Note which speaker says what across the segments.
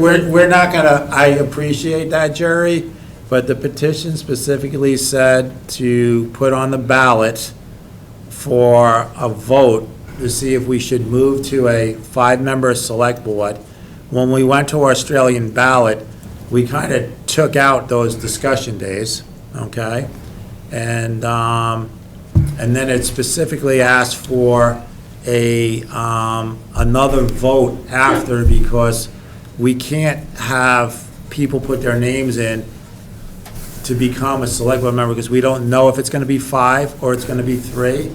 Speaker 1: We're, we're not gonna, I appreciate that, Jerry, but the petition specifically said to put on the ballot for a vote to see if we should move to a five-member select board. When we went to Australian ballot, we kind of took out those discussion days, okay? And, um, and then it specifically asked for a, um, another vote after because we can't have people put their names in to become a select board member, because we don't know if it's gonna be five or it's gonna be three.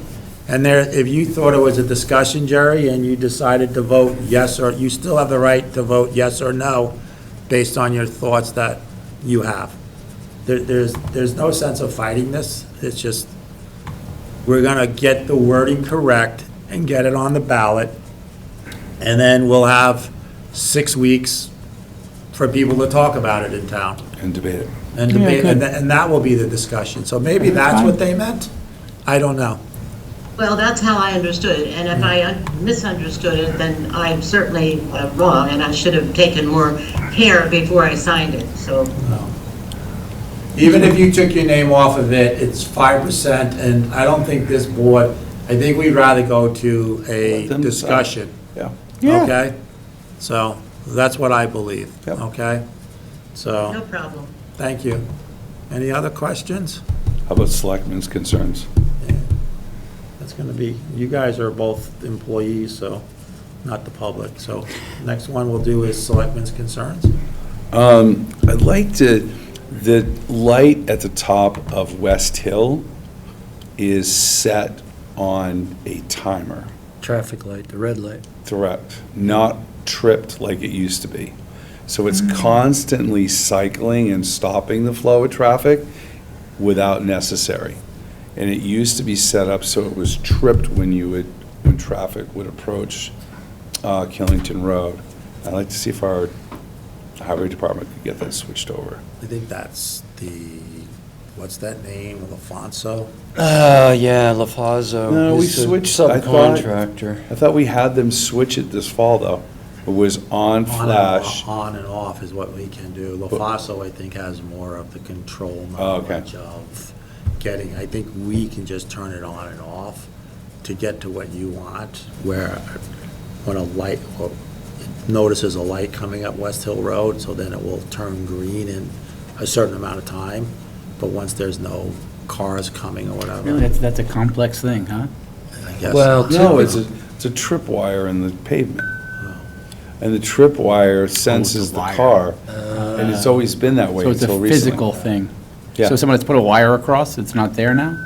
Speaker 1: And there, if you thought it was a discussion, Jerry, and you decided to vote yes or, you still have the right to vote yes or no based on your thoughts that you have. There, there's, there's no sense of fighting this, it's just, we're gonna get the wording correct and get it on the ballot. And then we'll have six weeks for people to talk about it in town.
Speaker 2: and debate it.
Speaker 1: And
Speaker 3: Yeah,
Speaker 1: debate, and
Speaker 3: good.
Speaker 1: tha- and that will be the discussion. So maybe that's what they meant? I don't know.
Speaker 4: Well, that's how I understood it, and if I un- misunderstood it, then I'm certainly uh, wrong, and I should have taken more care before I signed it, so.
Speaker 1: Even if you took your name off of it, it's five percent, and I don't think this board, I think we'd rather go to a
Speaker 2: Let them decide.
Speaker 1: discussion,
Speaker 2: Yeah.
Speaker 3: Yeah,
Speaker 1: okay? So, that's what I believe,
Speaker 2: Yep.
Speaker 1: okay?
Speaker 4: No
Speaker 1: So,
Speaker 4: problem.
Speaker 1: thank you. Any other questions?
Speaker 2: How about selectmen's concerns?
Speaker 1: That's gonna be, you guys are both employees, so, not the public, so, next one we'll do is selectmen's concerns.
Speaker 2: Um, I'd like to, the light at the top of West Hill is set on a timer,
Speaker 5: traffic light, the red light.
Speaker 2: correct, not tripped like it used to be. So it's
Speaker 1: Mm.
Speaker 2: constantly cycling and stopping the flow of traffic without necessary. And it used to be set up so it was tripped when you would, when traffic would approach uh, Killington Road. I'd like to see if our highway department could get that switched over.
Speaker 1: I think that's the, what's that name, LaFonso?
Speaker 5: Uh, yeah, LaFazo.
Speaker 2: No, we
Speaker 5: is the
Speaker 2: switched- I thought-
Speaker 5: Subcontractor.
Speaker 2: I thought we had them switch it this fall, though. It was on
Speaker 1: On and
Speaker 2: flash.
Speaker 1: off- On and off is what we can do. LaFonso, I think, has more of the control
Speaker 2: Oh, okay.
Speaker 1: knowledge of getting, I think we can just turn it on and off to get to what you want, where, when a light, or it notices a light coming up West Hill Road, so then it will turn green in a certain amount of time, but once there's no cars coming or
Speaker 6: Really,
Speaker 1: whatever,
Speaker 6: that's, that's a complex thing, huh?
Speaker 1: I guess.
Speaker 5: Well,
Speaker 2: No,
Speaker 5: typ-
Speaker 2: it's a, it's a tripwire in the pavement. And the
Speaker 6: Oh,
Speaker 2: tripwire senses the car, and it's always been that way
Speaker 6: Ah. So it's a
Speaker 2: until recently.
Speaker 6: physical thing.
Speaker 2: Yeah.
Speaker 6: So someone has put a wire across, it's not there now?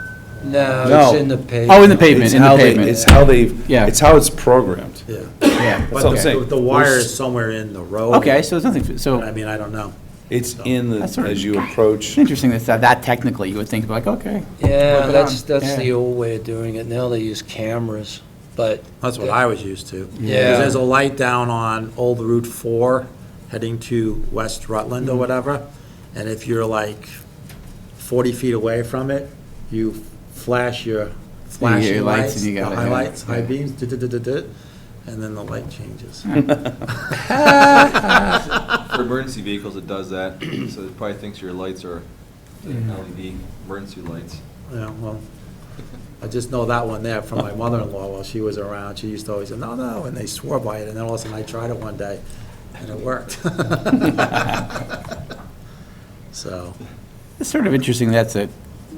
Speaker 5: no,
Speaker 2: No.
Speaker 5: it's in the pavement.
Speaker 6: Oh, in the pavement,
Speaker 2: It's
Speaker 6: in the
Speaker 2: how they-
Speaker 6: pavement.
Speaker 2: It's how they've,
Speaker 6: Yeah.
Speaker 2: it's how it's programmed.
Speaker 1: Yeah.
Speaker 6: Yeah.
Speaker 2: That's what I'm
Speaker 1: But the-
Speaker 2: saying.
Speaker 1: the wire is somewhere in the road.
Speaker 6: Okay, so it's nothing,
Speaker 1: I
Speaker 6: so
Speaker 1: mean, I don't know.
Speaker 2: It's in the,
Speaker 6: That's sort of-
Speaker 2: as you approach,
Speaker 6: it's interesting that's that that technically, you would think like, okay.
Speaker 5: Yeah,
Speaker 6: Work it
Speaker 5: that's,
Speaker 6: on.
Speaker 5: that's
Speaker 6: Yeah.
Speaker 5: the old way of doing it. Now they use cameras, but,
Speaker 1: That's what I was used to. 'Cause
Speaker 5: Yeah.
Speaker 1: there's a light down on Old Route 4 heading to West Rutland or
Speaker 6: Mm-hmm.
Speaker 1: whatever, and if you're like 40 feet away from it, you flash your
Speaker 6: you get your
Speaker 1: flashing
Speaker 6: lights
Speaker 1: lights,
Speaker 6: and you
Speaker 1: the
Speaker 6: got it, yeah.
Speaker 1: highlights, high beams, duh, duh, duh, duh, duh, and then the light changes.
Speaker 7: For emergency vehicles, it does that, so it probably thinks your lights are LED emergency lights.
Speaker 1: Yeah, well, I just know that one there from my mother-in-law while she was around. She used to always say, no, no, and they swore by it, and then all of a sudden I tried it one day, and it worked. So,
Speaker 6: It's sort of interesting that's a,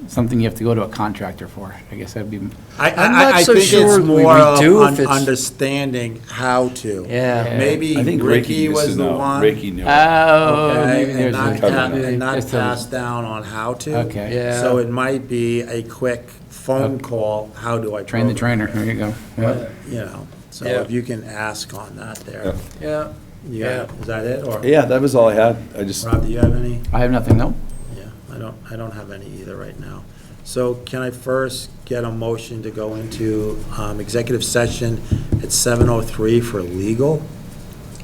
Speaker 6: something you have to go to a contractor for. I guess that'd be,
Speaker 1: I,
Speaker 5: I'm not
Speaker 1: I, I
Speaker 5: so
Speaker 1: think it's
Speaker 5: sure we- we
Speaker 1: more of
Speaker 5: do if
Speaker 1: un-
Speaker 5: it's-
Speaker 1: understanding how to.
Speaker 5: yeah.
Speaker 1: Maybe
Speaker 2: I think
Speaker 1: Ricky
Speaker 2: Ricky used
Speaker 1: was
Speaker 2: to
Speaker 1: the
Speaker 2: know.
Speaker 1: one.
Speaker 2: Ricky knew it.
Speaker 6: oh,
Speaker 1: Okay,
Speaker 6: maybe
Speaker 1: and
Speaker 6: there's
Speaker 1: not,
Speaker 2: cover.
Speaker 1: pa-
Speaker 6: a.
Speaker 1: and not
Speaker 6: Just a-
Speaker 1: passed down on how to.
Speaker 6: Okay.
Speaker 5: Yeah.
Speaker 1: So it might be a quick phone call, how do I?
Speaker 6: Train the
Speaker 1: program
Speaker 6: trainer, there you go. Yeah.
Speaker 1: it? You know, so
Speaker 5: Yeah.
Speaker 1: if you can ask on that there.
Speaker 2: Yeah.
Speaker 5: Yeah,
Speaker 1: Yeah, is that it, or?
Speaker 2: Yeah, that was all I had. I just,
Speaker 1: Rob, do you have any?
Speaker 6: I have nothing, no?
Speaker 1: Yeah, I don't, I don't have any either right now. So can I first get a motion to go into um, executive session at 7:03 for legal?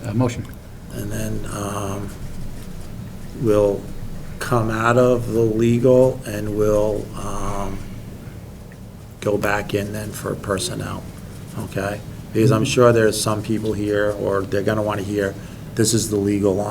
Speaker 6: Uh, Motion.
Speaker 1: And then um, we'll come out of the legal and we'll um, go back in then for personnel, okay? Because I'm sure there's some people here, or they're going to want to hear, this is the legal